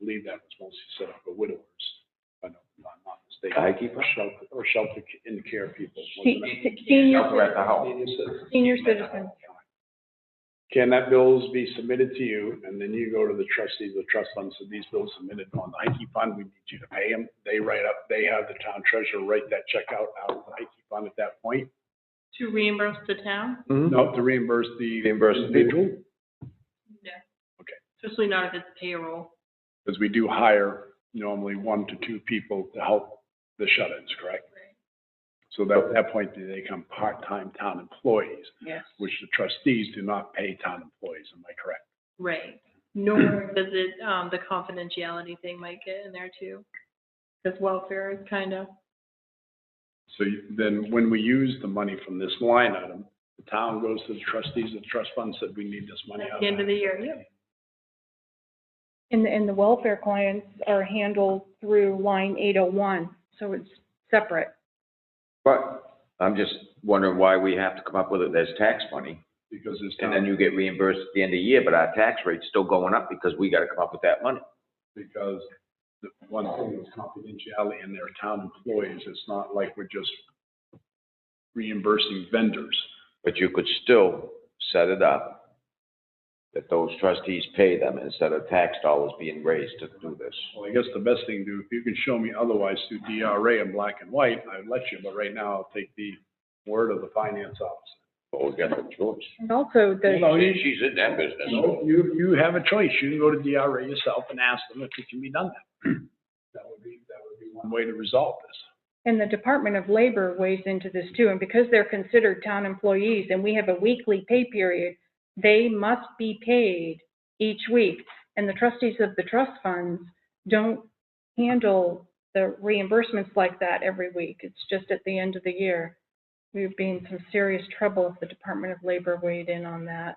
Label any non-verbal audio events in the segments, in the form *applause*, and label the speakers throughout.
Speaker 1: believe that was mostly set up for widowers, if I know- if I'm not mistaken.
Speaker 2: I keep
Speaker 1: Or shelter, or shelter in care people.
Speaker 3: Se-
Speaker 1: wasn't it?
Speaker 3: se- Senior,
Speaker 2: Shelter at the house.
Speaker 1: Senior citizens.
Speaker 3: senior citizens.
Speaker 1: Can that bills be submitted to you, and then you go to the trustees, the trust funds, and these bills submitted on the Heike Fund, we need you to pay them. They write up, they have the town treasurer write that check out, out of the Heike Fund at that point.
Speaker 4: To reimburse the town?
Speaker 1: No, to reimburse the.
Speaker 2: Hmm. Reimburse the people.
Speaker 1: Individual,
Speaker 4: No.
Speaker 1: Okay.
Speaker 4: Especially not if it's payroll.
Speaker 1: because we do hire normally one to two people to help the shut-ins, correct? So that, at that point, they become part-time town employees,
Speaker 4: Yes.
Speaker 1: which the trustees do not pay town employees, am I correct?
Speaker 4: Right. Nor does it, um, the confidentiality thing might get in there too. Because welfare is kind of,
Speaker 1: So you- then when we use the money from this line item, the town goes to the trustees of the trust fund, said we need this money out
Speaker 4: at
Speaker 1: of
Speaker 4: the end of
Speaker 1: that.
Speaker 4: the year, yeah.
Speaker 3: And, the- and the welfare clients are handled through line eight oh one, so it's separate.
Speaker 2: But I'm just wondering why we have to come up with it as tax money,
Speaker 1: Because this
Speaker 2: and then
Speaker 1: town,
Speaker 2: you get reimbursed at the end of the year, but our tax rate's still going up because we gotta come up with that money.
Speaker 1: because the one thing is confidentiality and they're town employees. It's not like we're just reimbursing vendors.
Speaker 2: But you could still set it up that those trustees pay them instead of tax dollars being raised to do this.
Speaker 1: Well, I guess the best thing to do, if you can show me otherwise through DRA in black and white, I'd let you, but right now I'll take the word of the finance officer.
Speaker 2: But we got no choice.
Speaker 3: And also the,
Speaker 1: No, you-
Speaker 2: She's in that business.
Speaker 1: No, you, you have a choice. You can go to DRA yourself and ask them if it can be done that. *clears throat* That would be, that would be one way to resolve this.
Speaker 3: and the Department of Labor weighs into this too, and because they're considered town employees and we have a weekly pay period, they must be paid each week. And the trustees of the trust funds don't handle the reimbursements like that every week. It's just at the end of the year. We would be in some serious trouble if the Department of Labor weighed in on that.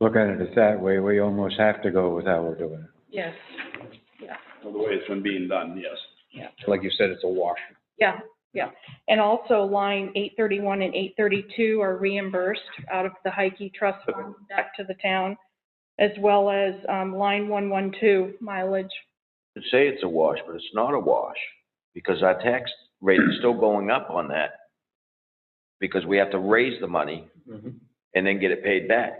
Speaker 5: look at it that way, we almost have to go with how we're doing it.
Speaker 3: Yes.
Speaker 1: Well, the way it's been being done, yes.
Speaker 5: Like you said, it's a wash.
Speaker 3: Yeah, yeah. And also line eight thirty-one and eight thirty-two are reimbursed out of the Heike Trust Fund back to the town, as well as, um, line one one two mileage.
Speaker 2: They Say it's a wash, but it's not a wash, because our tax rate is still going up on that. Because we have to raise the money and then get it paid back.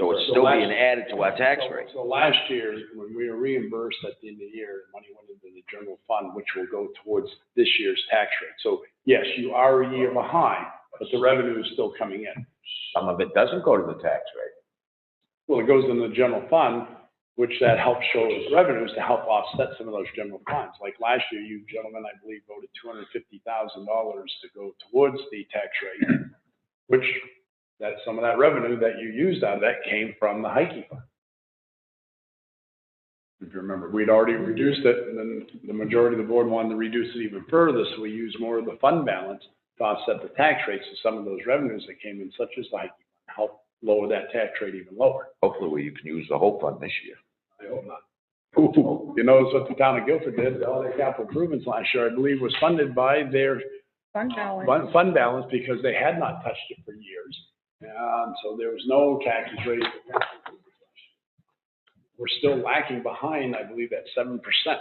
Speaker 2: So it's still being added to our tax rate.
Speaker 1: So last year, when we were reimbursed at the end of the year, money went into the general fund, which will go towards this year's tax rate. So yes, you are a year behind, but the revenue is still coming in.
Speaker 2: Some of it doesn't go to the tax rate.
Speaker 1: Well, it goes in the general fund, which that helps show as revenues to help offset some of those general funds. Like last year, you gentlemen, I believe, voted two hundred and fifty thousand dollars to go towards the tax rate, which that some of that revenue that you used out of that came from the Heike Fund. If you remember, we'd already reduced it, and then the majority of the board wanted to reduce it even further, so we used more of the fund balance to offset the tax rates of some of those revenues that came in, such as the Heike Fund, help lower that tax rate even lower.
Speaker 2: Hopefully, we can use the whole fund this year.
Speaker 1: I hope not. You notice what the town of Guilford did, all their capital improvements last year, I believe, was funded by their
Speaker 3: Fund balance.
Speaker 1: fund- fund balance because they had not touched it for years. And so there was no taxes raised. for capital improvements last year. We're still lacking behind, I believe, that seven percent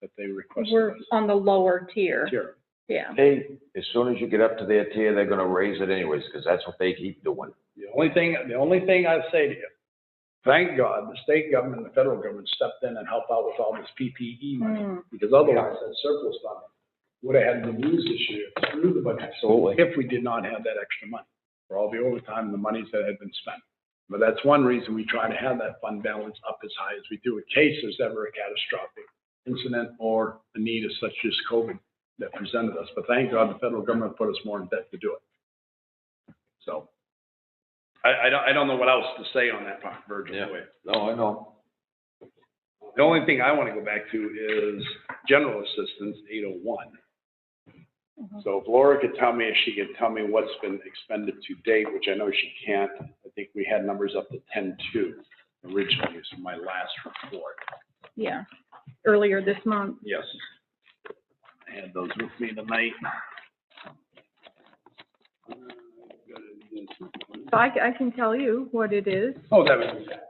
Speaker 1: that they requested.
Speaker 3: We're
Speaker 1: us
Speaker 3: on the lower tier,
Speaker 1: here.
Speaker 3: yeah.
Speaker 2: Hey, as soon as you get up to their tier, they're gonna raise it anyways, because that's what they keep doing.
Speaker 1: The only thing, the only thing I say to you, thank God, the state government and the federal government stepped in and helped out with all this PPE money.
Speaker 3: Hmm.
Speaker 1: because otherwise that surplus fund would have had to be used this year through the budget.
Speaker 2: Absolutely.
Speaker 1: If we did not have that extra money for all the overtime and the monies that had been spent. But that's one reason we try to have that fund balance up as high as we do in case there's ever a catastrophic incident or a need as such as COVID that presented us. But thank God the federal government put us more in debt to do it. So I, I don't, I don't know what else to say on that part, Virgil.
Speaker 2: Yeah.
Speaker 1: Wait.
Speaker 2: No, I know.
Speaker 1: The only thing I want to go back to is general assistance, eight oh one.
Speaker 3: Mhm.
Speaker 1: So if Laura could tell me, if she could tell me what's been expended to date, which I know she can't, I think we had numbers up to ten-two originally, is my last report.
Speaker 3: Yeah, earlier this month.
Speaker 1: Yes. I had those with me tonight.
Speaker 3: So I, I can tell you what it is.
Speaker 1: Oh, that was,